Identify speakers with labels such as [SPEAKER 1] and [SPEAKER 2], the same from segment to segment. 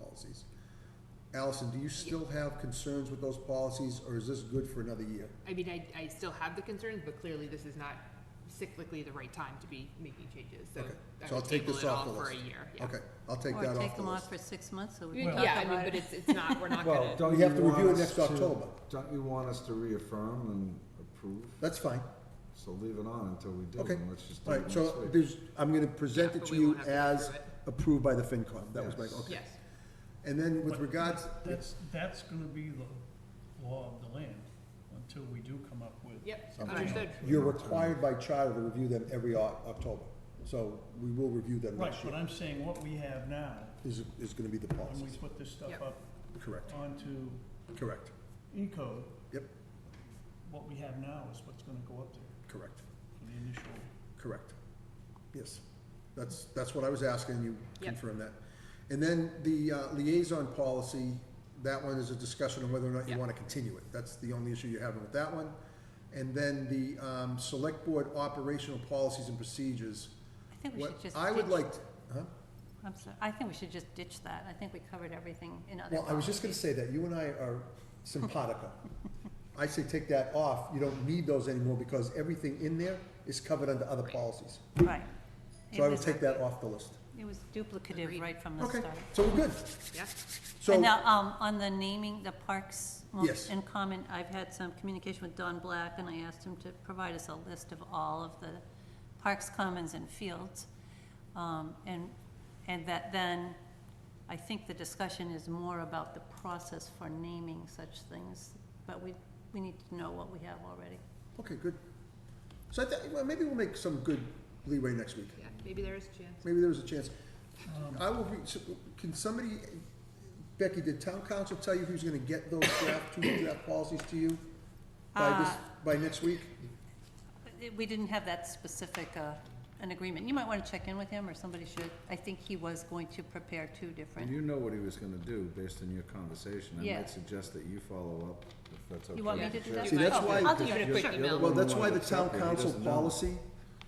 [SPEAKER 1] policies. Allison, do you still have concerns with those policies, or is this good for another year?
[SPEAKER 2] I mean, I, I still have the concerns, but clearly this is not cyclically the right time to be making changes, so.
[SPEAKER 1] Okay,
[SPEAKER 2] I
[SPEAKER 1] so I'll
[SPEAKER 2] would
[SPEAKER 1] take
[SPEAKER 2] table
[SPEAKER 1] this
[SPEAKER 2] it
[SPEAKER 1] off
[SPEAKER 2] all
[SPEAKER 1] the
[SPEAKER 2] For a
[SPEAKER 1] list.
[SPEAKER 2] year, yeah.
[SPEAKER 1] Okay, I'll take
[SPEAKER 3] Or
[SPEAKER 1] that
[SPEAKER 3] take
[SPEAKER 1] off the
[SPEAKER 3] them off
[SPEAKER 1] list.
[SPEAKER 3] for six months, so we can talk
[SPEAKER 2] Yeah, I mean,
[SPEAKER 3] about
[SPEAKER 2] but
[SPEAKER 3] it.
[SPEAKER 2] it's, it's not, we're not
[SPEAKER 4] Well,
[SPEAKER 2] gonna,
[SPEAKER 4] don't
[SPEAKER 1] We
[SPEAKER 4] you
[SPEAKER 1] have to review
[SPEAKER 4] want
[SPEAKER 1] it
[SPEAKER 4] us
[SPEAKER 1] next
[SPEAKER 4] to-
[SPEAKER 1] October.
[SPEAKER 4] Don't you want us to reaffirm and approve?
[SPEAKER 1] That's fine,
[SPEAKER 4] So leave it on until we do,
[SPEAKER 1] okay.
[SPEAKER 4] and let's just do
[SPEAKER 1] All
[SPEAKER 4] it
[SPEAKER 1] right,
[SPEAKER 4] next
[SPEAKER 1] so
[SPEAKER 4] week.
[SPEAKER 1] there's, I'm gonna present
[SPEAKER 2] Yeah,
[SPEAKER 1] it
[SPEAKER 2] but
[SPEAKER 1] to
[SPEAKER 2] we
[SPEAKER 1] you
[SPEAKER 2] won't have to
[SPEAKER 1] as
[SPEAKER 2] approve it.
[SPEAKER 1] approved by the FinCom, that was my,
[SPEAKER 4] Yes.
[SPEAKER 1] okay.
[SPEAKER 2] yes,
[SPEAKER 1] And then with
[SPEAKER 5] But
[SPEAKER 1] regards,
[SPEAKER 5] That's, that's gonna be the law of the land until we do come up with.
[SPEAKER 2] yep,
[SPEAKER 5] something
[SPEAKER 2] understood.
[SPEAKER 5] else.
[SPEAKER 1] you're required by charter to review them every Oc- October, so we will review them
[SPEAKER 5] Right,
[SPEAKER 1] next
[SPEAKER 5] but
[SPEAKER 1] year.
[SPEAKER 5] I'm saying what we have now,
[SPEAKER 1] Is, is gonna be the
[SPEAKER 5] when we
[SPEAKER 1] policies,
[SPEAKER 5] put this stuff
[SPEAKER 2] Yep.
[SPEAKER 5] up
[SPEAKER 1] correct,
[SPEAKER 5] onto
[SPEAKER 1] correct,
[SPEAKER 5] E-code,
[SPEAKER 1] yep,
[SPEAKER 5] what we have now is what's gonna go up there
[SPEAKER 1] correct.
[SPEAKER 5] for the initial.
[SPEAKER 1] Correct. Yes. That's, that's what I was asking, you
[SPEAKER 2] Yep.
[SPEAKER 1] confirm that. And then the uh, liaison policy, that one is a discussion on whether or not you
[SPEAKER 2] Yep.
[SPEAKER 1] want to continue it. That's the only issue you're having with that one. And then the um, select board operational policies and procedures.
[SPEAKER 3] I think we
[SPEAKER 1] What
[SPEAKER 3] should just ditch.
[SPEAKER 1] I would like, to- huh?
[SPEAKER 3] I'm sorry, I think we should just ditch that. I think we covered everything in other
[SPEAKER 1] Well, I was just gonna
[SPEAKER 3] policies.
[SPEAKER 1] say that, you and I are simpatico. I say take that off, you don't need those anymore because everything in there is covered under other
[SPEAKER 2] Right.
[SPEAKER 1] policies.
[SPEAKER 3] Right. It
[SPEAKER 1] So I would
[SPEAKER 3] was-
[SPEAKER 1] take that off the list.
[SPEAKER 3] It was
[SPEAKER 2] Agreed.
[SPEAKER 3] duplicative right from the
[SPEAKER 1] Okay,
[SPEAKER 3] start.
[SPEAKER 1] so we're good.
[SPEAKER 2] Yeah,
[SPEAKER 1] So.
[SPEAKER 3] And now, um, on the naming, the parks most
[SPEAKER 1] Yes.
[SPEAKER 3] in common, I've had some communication with Don Black, and I asked him to provide us a list of all of the parks, commons, and fields. Um, and, and that then, I think the discussion is more about the process for naming such things, but we, we need to know what we have already.
[SPEAKER 1] Okay, good. So I think, well, maybe we'll make some good leeway next week.
[SPEAKER 2] yeah, maybe there is a chance.
[SPEAKER 1] Maybe there was a chance.
[SPEAKER 5] Um,
[SPEAKER 1] I will, re- so can somebody, Becky, did town council tell you who's gonna get those draft, two draft policies to you? By this,
[SPEAKER 3] Uh,
[SPEAKER 1] by next week?
[SPEAKER 3] It- We didn't have that specific, uh, an agreement. You might want to check in with him, or somebody should. I think he was going to prepare two
[SPEAKER 4] And
[SPEAKER 3] different.
[SPEAKER 4] you know what he was gonna do based on your conversation. I
[SPEAKER 3] Yeah.
[SPEAKER 4] might suggest that you follow up, if that's okay.
[SPEAKER 3] You want me
[SPEAKER 2] Yeah.
[SPEAKER 3] to do that?
[SPEAKER 1] See, that's
[SPEAKER 3] Oh,
[SPEAKER 1] why-
[SPEAKER 3] I'll do
[SPEAKER 2] Even
[SPEAKER 3] it,
[SPEAKER 2] a quick
[SPEAKER 3] sure.
[SPEAKER 2] email.
[SPEAKER 1] Well,
[SPEAKER 4] Well,
[SPEAKER 1] that's why the
[SPEAKER 4] it's
[SPEAKER 1] town
[SPEAKER 4] separate. He
[SPEAKER 1] council
[SPEAKER 4] doesn't know.
[SPEAKER 1] policy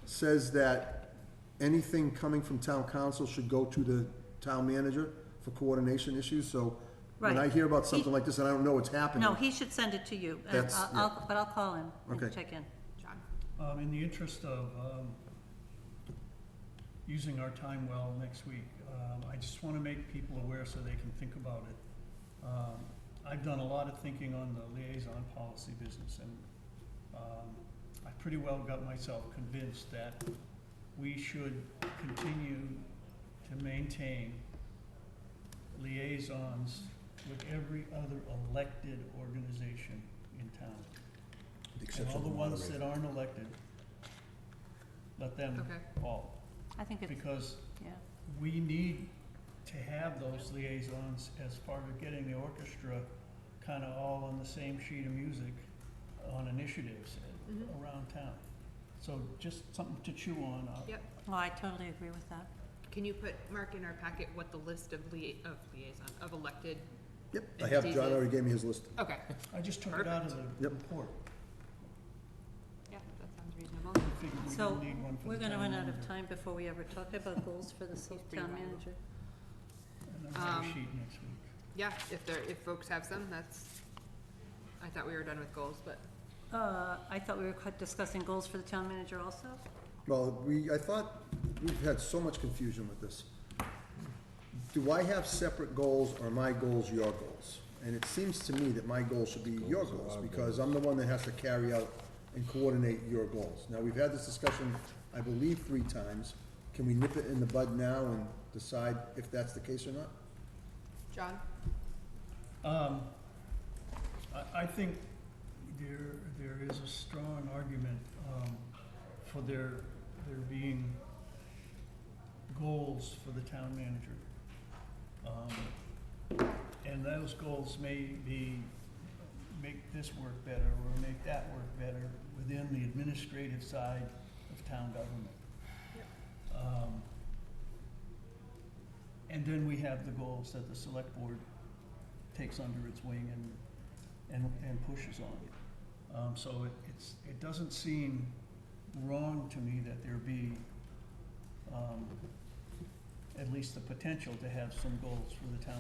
[SPEAKER 1] says that anything coming from town council should go to the town manager for coordination issues, so when I
[SPEAKER 3] Right.
[SPEAKER 1] hear about something
[SPEAKER 3] He-
[SPEAKER 1] like this and I don't know what's happening.
[SPEAKER 3] No, he should send it to you, and
[SPEAKER 1] That's-
[SPEAKER 3] I'll-
[SPEAKER 1] yeah.
[SPEAKER 3] I'll- but I'll call him
[SPEAKER 1] Okay.
[SPEAKER 3] and check in.
[SPEAKER 2] John,
[SPEAKER 5] Um, in the interest of, um, using our time well next week, um, I just wanna make people aware so they can think about it. Um, I've done a lot of thinking on the liaison policy business and, um, I pretty well got myself convinced that we should continue to maintain liaisons with every other elected organization in town.
[SPEAKER 1] With the
[SPEAKER 5] And
[SPEAKER 1] exception
[SPEAKER 5] all
[SPEAKER 1] of
[SPEAKER 5] the ones
[SPEAKER 1] moderator.
[SPEAKER 5] that aren't elected, let them
[SPEAKER 2] Okay.
[SPEAKER 5] fall,
[SPEAKER 3] I think it's,
[SPEAKER 5] because
[SPEAKER 3] yeah,
[SPEAKER 5] we need to have those liaisons as part of getting the orchestra kinda all on the same sheet of music on initiatives
[SPEAKER 2] Mm-hmm.
[SPEAKER 5] around town. So just something to chew on, uh,
[SPEAKER 2] yep.
[SPEAKER 3] oh, I totally agree with that.
[SPEAKER 2] Can you put, Mark, in our packet what the list of lia- of liaison, of elected,
[SPEAKER 1] Yep, I have, John already gave me his list.
[SPEAKER 2] okay,
[SPEAKER 5] I just took it out of the
[SPEAKER 1] Yep.
[SPEAKER 5] report,
[SPEAKER 2] yeah, that sounds reasonable.
[SPEAKER 5] I figured we
[SPEAKER 3] So,
[SPEAKER 5] didn't need one for
[SPEAKER 3] We're
[SPEAKER 5] the town
[SPEAKER 3] gonna run out of
[SPEAKER 5] manager.
[SPEAKER 3] time before we ever talk about goals for the self-
[SPEAKER 2] pretty
[SPEAKER 3] town
[SPEAKER 2] valuable.
[SPEAKER 3] manager.
[SPEAKER 5] And another
[SPEAKER 2] Um,
[SPEAKER 5] sheet next week.
[SPEAKER 2] Yeah, if there, if folks have some, that's, I thought we were done with goals, but,
[SPEAKER 3] Uh, I thought we were cu- discussing goals for the town manager also?
[SPEAKER 1] Well, we, I thought, we've had so much confusion with this. Do I have separate goals or my goals your goals? And it seems to me that my goals should be your
[SPEAKER 4] Goals are
[SPEAKER 1] goals,
[SPEAKER 4] our
[SPEAKER 1] because I'm the one that has to carry out and coordinate your goals. Now, we've had this discussion, I believe, three times. Can we nip it in the bud now and decide if that's the case or not?
[SPEAKER 2] John?
[SPEAKER 5] Um, I, I think there, there is a strong argument, um, for there, there being goals for the town manager. Um, And those goals may be, make this work better, or make that work better within the administrative side of town government. Um, And then we have the goals that the select board takes under its wing and, and, and pushes on. Um, so it, it's, it doesn't seem wrong to me that there be, um, at least the potential to have some goals for the town